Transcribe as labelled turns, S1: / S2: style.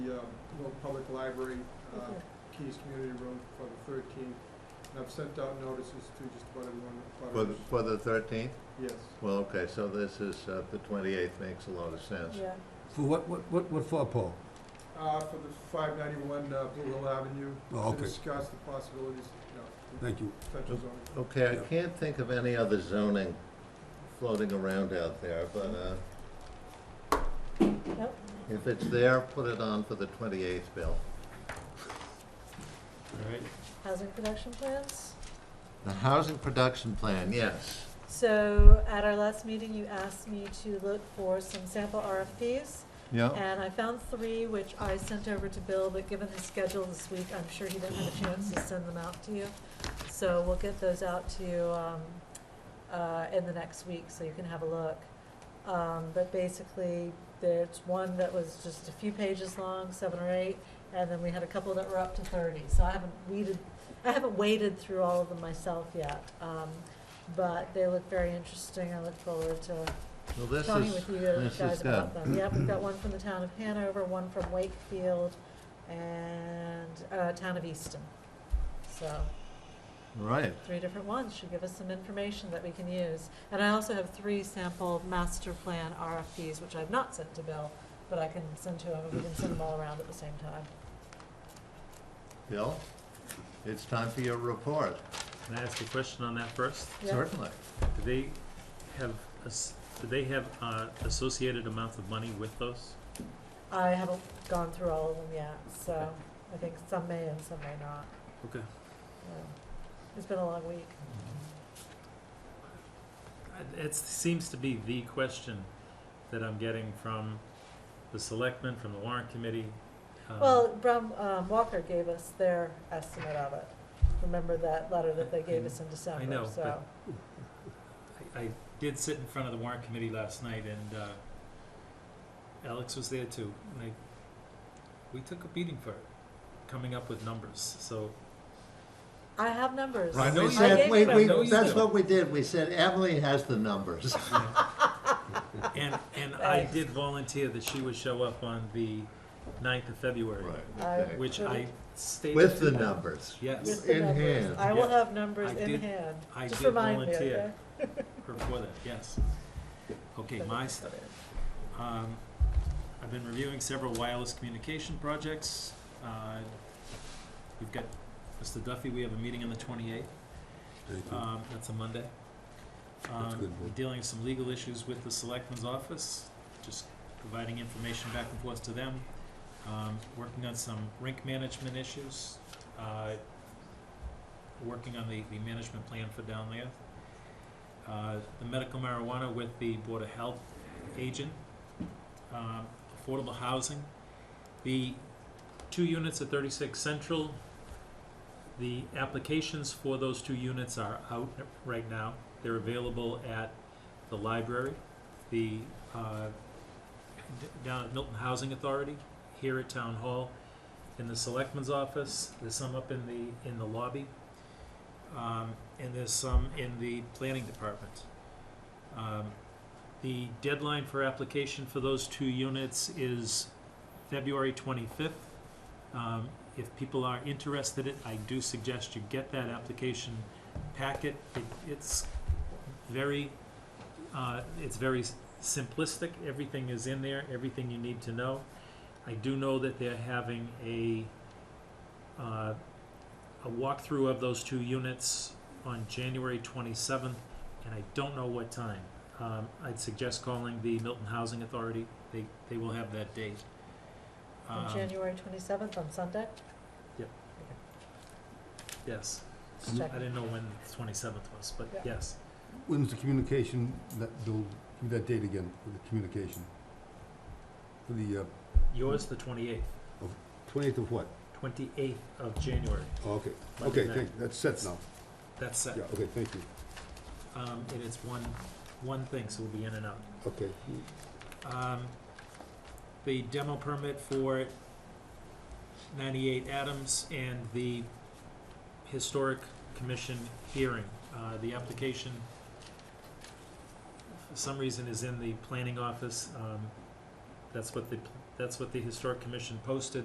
S1: uh, Little Public Library, uh,
S2: Okay.
S1: Keys Community Room for the thirteenth. And I've sent out notices to just about everyone. that
S3: For,
S1: butters.
S3: for the thirteenth?
S1: Yes,
S3: Well, okay, so this is, uh, the twenty-eighth makes a lot of sense.
S2: Yeah,
S4: For what, what, what, what for, Paul?
S1: uh, for the five ninety-one, uh, Blue Hill Avenue.
S4: Oh, okay.
S1: To discuss the possibilities, you know,
S4: Thank you.
S1: potential zoning.
S3: Okay, I
S4: Yeah.
S3: can't think of any other zoning floating around out there, but, uh,
S2: Nope.
S3: if it's there, put it on for the twenty-eighth, Bill.
S5: Alright,
S2: housing production plans.
S3: The housing production plan, yes.
S2: So at our last meeting, you asked me to look for some sample RFPs.
S3: Yeah,
S2: And I found three, which I sent over to Bill, but given his schedule this week, I'm sure he didn't have a chance to send them out to you. So we'll get those out to you, um, uh, in the next week, so you can have a look. Um, but basically, there's one that was just a few pages long, seven or eight, and then we had a couple that were up to thirty, so I haven't weeded, I haven't waded through all of them myself yet. Um, but they look very interesting, I look forward to
S3: well, this
S2: talking
S3: is,
S2: with you
S3: this
S2: guys
S3: is good.
S2: about them. Yep, we've got one from the town of Hanover, one from Wakefield, and, uh, town of Easton. So,
S3: Right,
S2: three different ones should give us some information that we can use. And I also have three sample master plan RFPs, which I've not sent to Bill, but I can send to him, and we can send them all around at the same time.
S3: Bill, it's time for your report,
S5: can I ask a question on that first?
S2: Yeah.
S3: certainly.
S5: Do they have, as- do they have uh, associated amounts of money with those?
S2: I haven't gone through all of them yet, so I think some may and some may not.
S5: Okay.
S2: Yeah. It's been a long week.
S5: Uh, It seems to be the question that I'm getting from the selectmen, from the warrant committee. um,
S2: Well, Brown, um, Walker gave us their estimate of it. Remember that letter that they gave us in December,
S5: Mm-hmm. know,
S2: so.
S5: I- I did sit in front of the warrant committee last night and uh, Alex was there too. And I, we took a beating for it, coming up with numbers, so.
S2: I have numbers.
S5: Right, know
S3: We
S5: you
S2: I
S3: said-
S2: gave you
S3: wait, we-
S5: I know
S2: numbers.
S5: you
S3: That's
S5: do.
S3: what we did, we said Emily has the numbers.
S5: And, and I did volunteer that she would show up on the 9th of February,
S3: okay.
S5: which I stated.
S3: With the
S5: to-
S3: numbers.
S5: Yes,
S2: With the
S3: in
S2: numbers.
S3: hand.
S2: I will
S5: Yeah.
S2: have numbers
S5: I
S2: in
S5: did-
S2: hand.
S5: I
S2: Just
S5: did
S2: remind me,
S5: volunteer.
S2: okay?
S5: before that, yes. Okay, my stuff. Um, I've been reviewing several wireless communication projects. Uh, We've got, Mr. Duffy, we have a meeting on the 28th.
S4: Thank you.
S5: Um, that's a Monday.
S4: That's
S5: Um,
S4: good, Bill.
S5: we're Dealing with some legal issues with the selectmen's office, just providing information back and forth to them. Um, working on some rink management issues, uh, working on the, the management plan for down there. Uh, the medical marijuana with the Board of Health agent, um, affordable housing. The two units at thirty-six Central, the applications for those two units are out right now. They're available at the library, the, uh, d- down at Milton Housing Authority, here at Town Hall, in the Selectman's office, there's some up in the, in the lobby, um, and there's some in the planning department. Um, The deadline for application for those two units is February twenty-fifth. Um, if people are interested in it, I do suggest you get that application packet. It, it's very, uh, it's very s- simplistic. Everything is in there, everything you need to know. I do know that they're having a, uh, a walkthrough of those two units on January twenty-seventh, and I don't know what time. Um, I'd suggest calling the Milton Housing Authority. They, they will have that date.
S2: On
S5: Um,
S2: January twenty-seventh, on Sunday,
S5: Yes.
S2: just
S5: I
S2: checking.
S5: didn't know when the twenty-seventh was, but
S2: Mm-hmm. Yeah.
S5: yes.
S4: When's the communication, that, Bill, give me that date again, for the communication? For the, uh,
S5: Yours, the twenty-eighth,
S4: twenty-eighth of what?
S5: twenty-eighth of January.
S4: Oh, okay,
S5: Monday
S4: okay,
S5: night.
S4: thank, that's set now.
S5: That's set.
S4: Yeah, okay, thank you,
S5: Um, and it's one, one thing, so we'll be in and out.
S4: okay.
S5: Um, the demo permit for ninety-eight Adams and the historic commission hearing, uh, the application for some reason is in the planning office, um, that's what the, that's what the historic commission posted.